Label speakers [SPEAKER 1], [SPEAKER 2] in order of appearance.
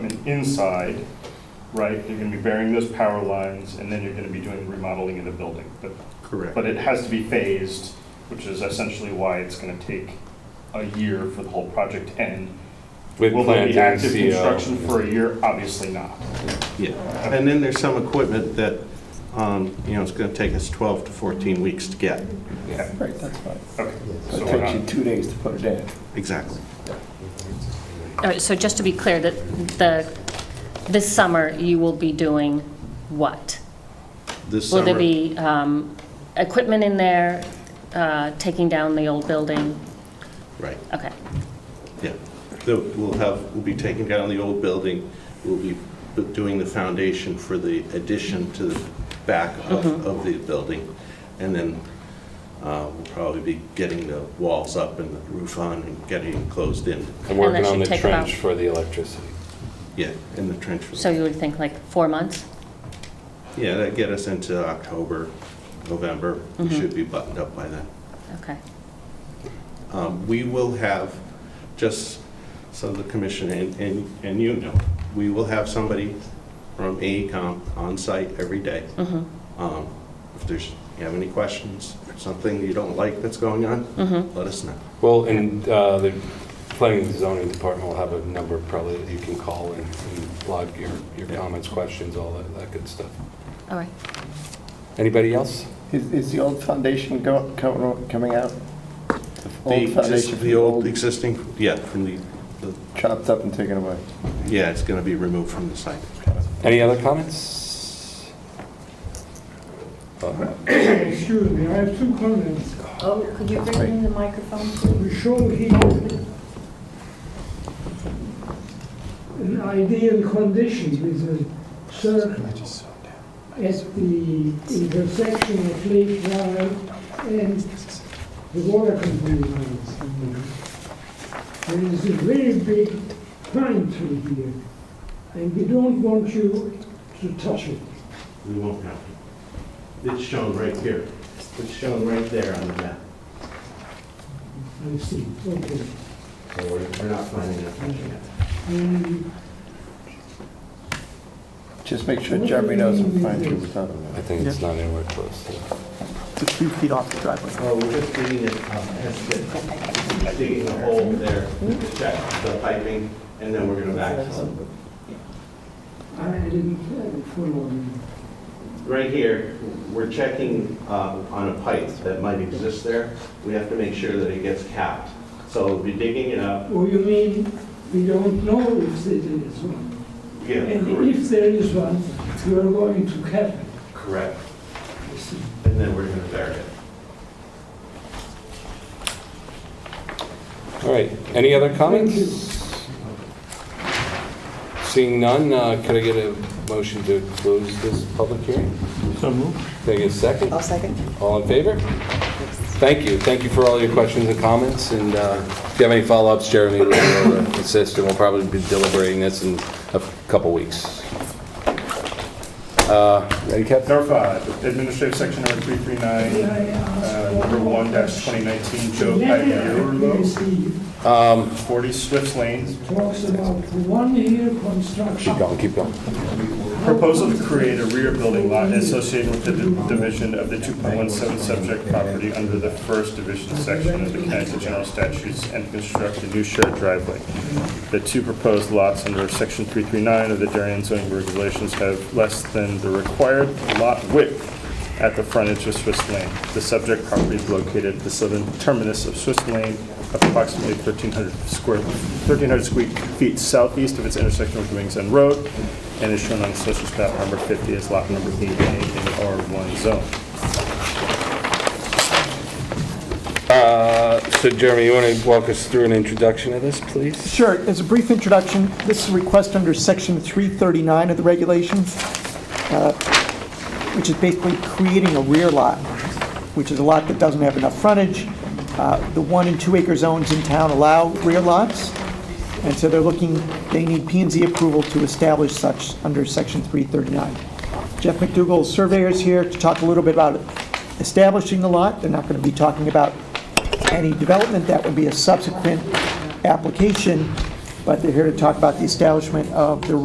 [SPEAKER 1] inside, right? You're gonna be burying those power lines, and then you're gonna be doing remodeling in the building. But,
[SPEAKER 2] Correct.
[SPEAKER 1] but it has to be phased, which is essentially why it's gonna take a year for the whole project to end.
[SPEAKER 3] With
[SPEAKER 1] Will there be
[SPEAKER 3] plantings,
[SPEAKER 1] active
[SPEAKER 3] CO.
[SPEAKER 1] construction for a year? Obviously not.
[SPEAKER 2] Yeah, and then there's some equipment that, um, you know, it's going to take us 12 to 14 weeks to get.
[SPEAKER 1] Okay,
[SPEAKER 4] Right, that's fine.
[SPEAKER 1] okay. So
[SPEAKER 4] It
[SPEAKER 1] we're
[SPEAKER 4] takes you
[SPEAKER 1] not,
[SPEAKER 4] two days to put it in.
[SPEAKER 2] Exactly.
[SPEAKER 5] All right, so just to be clear, that the, this summer, you will be doing what?
[SPEAKER 2] This
[SPEAKER 5] Will there
[SPEAKER 2] summer,
[SPEAKER 5] be um, equipment in there, uh, taking down the old building?
[SPEAKER 2] right,
[SPEAKER 5] Okay,
[SPEAKER 2] yeah. The- We'll have, we'll be taking down the old building, we'll be bu- doing the foundation for the addition to the back
[SPEAKER 5] Mm-hmm.
[SPEAKER 2] of, of the building. And then uh, we'll probably be getting the walls up and the roof on and getting it closed in.
[SPEAKER 3] I'm
[SPEAKER 5] that
[SPEAKER 3] working
[SPEAKER 5] should
[SPEAKER 3] on the
[SPEAKER 5] take about-
[SPEAKER 3] trench for the electricity.
[SPEAKER 2] Yeah, in the trench.
[SPEAKER 5] so you would think like four months?
[SPEAKER 2] Yeah, that'd get us into October, November. We
[SPEAKER 5] Mm-hmm.
[SPEAKER 2] should be buttoned up by then.
[SPEAKER 5] Okay.
[SPEAKER 2] Um, We will have, just so the commission and- and and you know, we will have somebody from E AECom on site every day. Um, If there's, you have any questions, or something you don't like that's going on,
[SPEAKER 5] Mm-hmm.
[SPEAKER 2] let us know.
[SPEAKER 3] Well, and uh, the planning and zoning department will have a number probably that you can call and and log your, your
[SPEAKER 2] Yeah.
[SPEAKER 3] comments, questions, all that, that good stuff.
[SPEAKER 5] All right.
[SPEAKER 3] Anybody else?
[SPEAKER 4] Is, is the old foundation go, co- coming out?
[SPEAKER 2] The
[SPEAKER 4] Old foundation
[SPEAKER 2] exist-
[SPEAKER 4] for
[SPEAKER 2] The old existing, yeah, from the, the-
[SPEAKER 4] chopped up and taken away.
[SPEAKER 2] yeah, it's going to be removed from the site.
[SPEAKER 3] Any other comments? Uh,
[SPEAKER 6] Excuse me, I have two comments.
[SPEAKER 7] Oh, could you bring in the microphone, please?
[SPEAKER 6] We show here an ideal condition with a circle at the intersection of Lake Drive and the water company lines. There is a very big pine tree here, and we don't want you to touch it.
[SPEAKER 2] We won't have it. It's shown right here. It's shown right there on the map.
[SPEAKER 6] I see, okay.
[SPEAKER 2] So we're we're not finding it.
[SPEAKER 6] Um,
[SPEAKER 4] Just make sure Jeremy knows what fine tree we're talking
[SPEAKER 3] I
[SPEAKER 4] about.
[SPEAKER 3] think it's not anywhere close. so.
[SPEAKER 8] It's a few feet off the driveway.
[SPEAKER 2] Well, Oh, we're just digging it, up, that's it. digging a hole there, to check the piping, and then we're gonna backfill.
[SPEAKER 6] I didn't uh, follow you.
[SPEAKER 2] Right here, we're checking uh, on a pipe that might exist there. We have to make sure that it gets capped. So we'll be digging it up.
[SPEAKER 6] Oh, you mean, we don't know if there is one?
[SPEAKER 2] Yeah,
[SPEAKER 6] And if there is one, you are going to cap it.
[SPEAKER 2] Correct.
[SPEAKER 6] I see.
[SPEAKER 2] And then we're gonna bury it.
[SPEAKER 3] All right, any other comments? Seeing none, uh, could I get a motion to close this public hearing? So moved. Can I get a second?
[SPEAKER 7] I'll second.
[SPEAKER 3] All in favor? Thank you, thank you for all your questions and comments, and uh, if you have any follow-ups, Jeremy will be able to assist, and we'll probably be deliberating this in a couple weeks. Uh, Ready, Kev?
[SPEAKER 1] Number five, administrative section number three three
[SPEAKER 6] May I
[SPEAKER 1] nine, uh,
[SPEAKER 6] ask
[SPEAKER 1] number
[SPEAKER 6] one
[SPEAKER 1] one
[SPEAKER 6] more
[SPEAKER 1] dash twenty nineteen,
[SPEAKER 6] The
[SPEAKER 1] Joe
[SPEAKER 6] letter I
[SPEAKER 1] Pagliarulo,
[SPEAKER 6] received
[SPEAKER 1] forty Swift Lane,
[SPEAKER 6] talks about one-year construction.
[SPEAKER 3] Keep going, keep going.
[SPEAKER 1] Proposal to create a rear building lot associated with the di- division of the 2.17 subject property under the first division section of the Connecticut General Statutes and construct a new shared driveway. The two proposed lots under section 339 of the Darien zoning regulations have less than the required lot width at the frontage of Swiss Lane. The subject property is located at the southern terminus of Swiss Lane, approximately 1,300 square, 1,300 square feet southeast of its intersection with Wings End Road, and is shown on Assessor's Map number 50 as lot number 88 in the R1 zone.
[SPEAKER 3] Uh, So Jeremy, you want to walk us through an introduction of this, please?
[SPEAKER 8] Sure, as a brief introduction, this is a request under Section 339 of the regulations, uh, which is basically creating a rear lot, which is a lot that doesn't have enough frontage. Uh, The one and two acre zones in town allow rear lots, and so they're looking, they need p and Z approval to establish such under Section 339. Jeff McDougall, surveyor, is here to talk a little bit about establishing the lot. They're not going to be talking about any development, that would be a subsequent application, but they're here to talk about the establishment of the